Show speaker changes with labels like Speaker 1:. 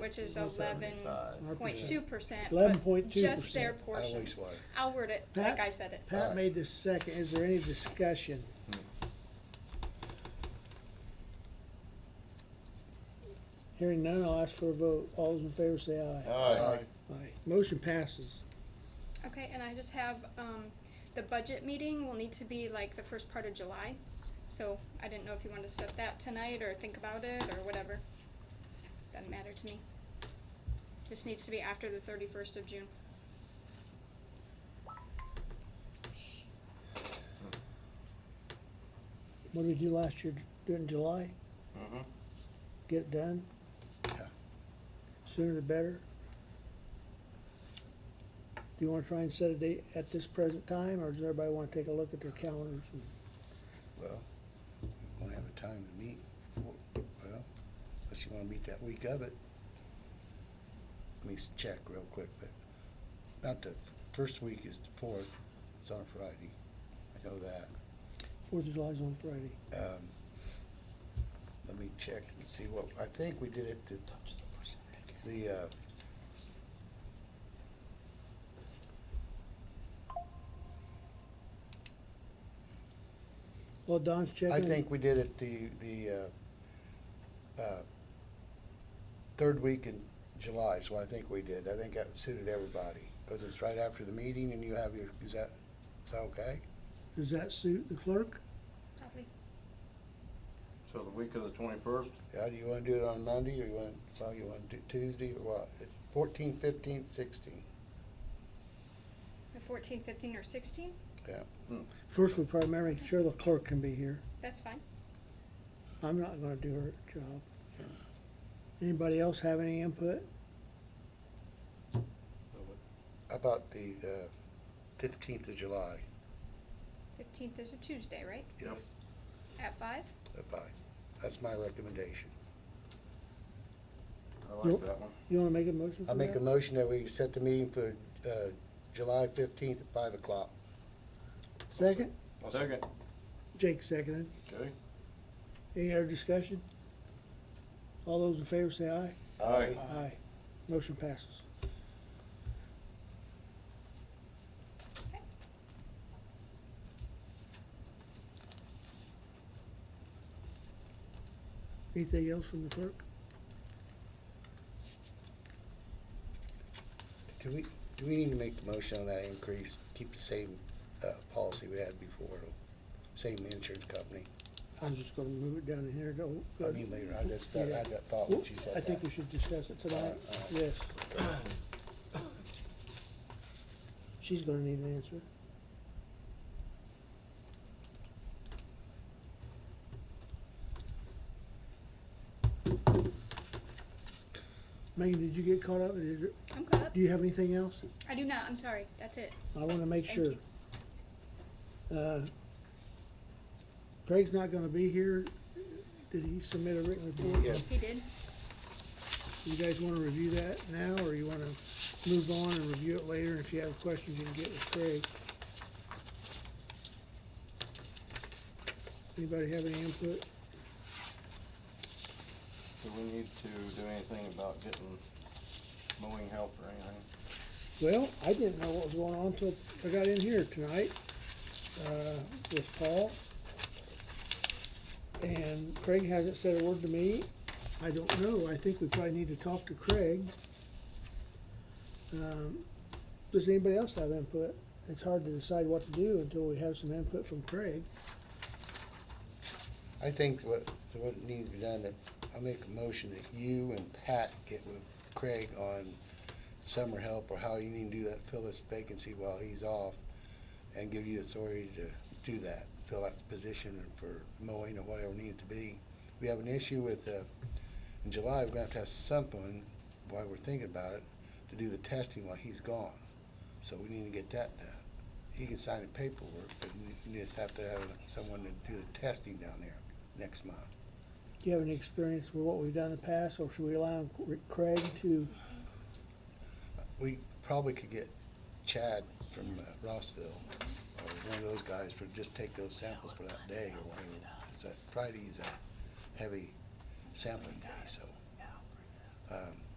Speaker 1: which is eleven point two percent.
Speaker 2: 11.2%.
Speaker 1: Just their
Speaker 3: Out of
Speaker 1: portion.
Speaker 3: wastewater.
Speaker 1: I'll word it
Speaker 2: Pat?
Speaker 1: like I said it.
Speaker 2: Pat made the second, is there any discussion? Hearing none, I'll ask for a vote, all those in favor say aye.
Speaker 3: Aye.
Speaker 2: Aye. Motion passes.
Speaker 1: Okay, and I just have, um, the budget meeting will need to be like the first part of July. So I didn't know if you wanted to set that tonight or think about it or whatever. Doesn't matter to me. This needs to be after the thirty-first of June.
Speaker 2: What did we do last year, do it in July,
Speaker 3: Mhm.
Speaker 2: get it done?
Speaker 3: Yeah.
Speaker 2: Sooner the better. Do you wanna try and set a date at this present time, or does everybody wanna take a look at their calendars? and-
Speaker 3: Well, we won't have a time to meet. Well, unless you wanna meet that week of it. Let me s- check real quick, but not the, first week is the fourth, it's on a Friday. I know that.
Speaker 2: Fourth of July's on Friday.
Speaker 3: Um, Let me check and see what, I think we did it the, the, uh,
Speaker 2: Well, Don's checking.
Speaker 3: I think we did it the, the, uh, uh, third week in July, so I think we did. I think that suited everybody, because it's right after the meeting and you have your, is that, is that okay?
Speaker 2: Does that suit the clerk?
Speaker 1: Probably.
Speaker 4: So the week of the twenty-first?
Speaker 3: Yeah, do you wanna do it on Monday, or you wanna, well, you wanna do Tuesday, or what? Fourteenth, fifteenth, sixteenth?
Speaker 1: The fourteen, fifteen, or sixteen,
Speaker 2: First, we probably better make sure the clerk can be here.
Speaker 1: that's fine.
Speaker 2: I'm not gonna do her job. Anybody else have any input?
Speaker 3: How about the, uh, fifteenth of July?
Speaker 1: Fifteenth is a Tuesday, right?
Speaker 4: Yep.
Speaker 1: At five?
Speaker 3: Bye. That's my recommendation.
Speaker 4: I like that one.
Speaker 2: You wanna make a motion
Speaker 3: I
Speaker 2: for
Speaker 3: make a
Speaker 2: that?
Speaker 3: motion that we set the meeting for, uh, July fifteenth at five o'clock.
Speaker 2: Second?
Speaker 4: Second.
Speaker 2: Jake seconded.
Speaker 4: Okay.
Speaker 2: Any other discussion? All those in favor say aye.
Speaker 4: Aye.
Speaker 2: Aye. Motion passes. Anything else from the clerk?
Speaker 3: Do we, do we need to make the motion on that increase, keep the same, uh, policy we had before, same insurance company?
Speaker 2: I'm just gonna move it down in here to.
Speaker 3: I mean, later, I just, I had that thought when she said that.
Speaker 2: I think we should discuss it tonight,
Speaker 3: All right, all
Speaker 2: yes. She's gonna need an answer. Megan, did you get caught up? Is there-
Speaker 1: I'm caught up.
Speaker 2: Do you have anything else?
Speaker 1: I do not, I'm sorry, that's it.
Speaker 2: I wanna make
Speaker 1: Thank
Speaker 2: sure. Uh, Craig's not gonna be here. Did he submit a written report?
Speaker 3: Yes.
Speaker 1: He did?
Speaker 2: You guys wanna review that now, or you wanna move on and review it later, and if you have questions, you can get with Craig? Anybody have any input?
Speaker 4: Do we need to do anything about getting mowing help or anything?
Speaker 2: Well, I didn't know what was going on until I got in here tonight, uh, with Paul. And Craig hasn't said a word to me. I don't know. I think we probably need to talk to Craig. Um, does anybody else have input? It's hard to decide what to do until we have some input from Craig.
Speaker 3: I think what, what needs to be done, that I make a motion that you and Pat get with Craig on summer help or how you need to do that, fill this vacancy while he's off and give you authority to do that, fill out the position for mowing or whatever needs to be. We have an issue with, uh, in July, we're gonna have to have someone, while we're thinking about it, to do the testing while he's gone. So we need to get that done. He can sign the paperwork, but you just have to have someone to do the testing down there next month.
Speaker 2: Do you have any experience with what we've done in the past, or should we allow Craig to,
Speaker 3: We probably could get Chad from uh, Rossville, or one of those guys, for just take those samples for that day or whatever. It's that Friday's a heavy sampling day, so. um,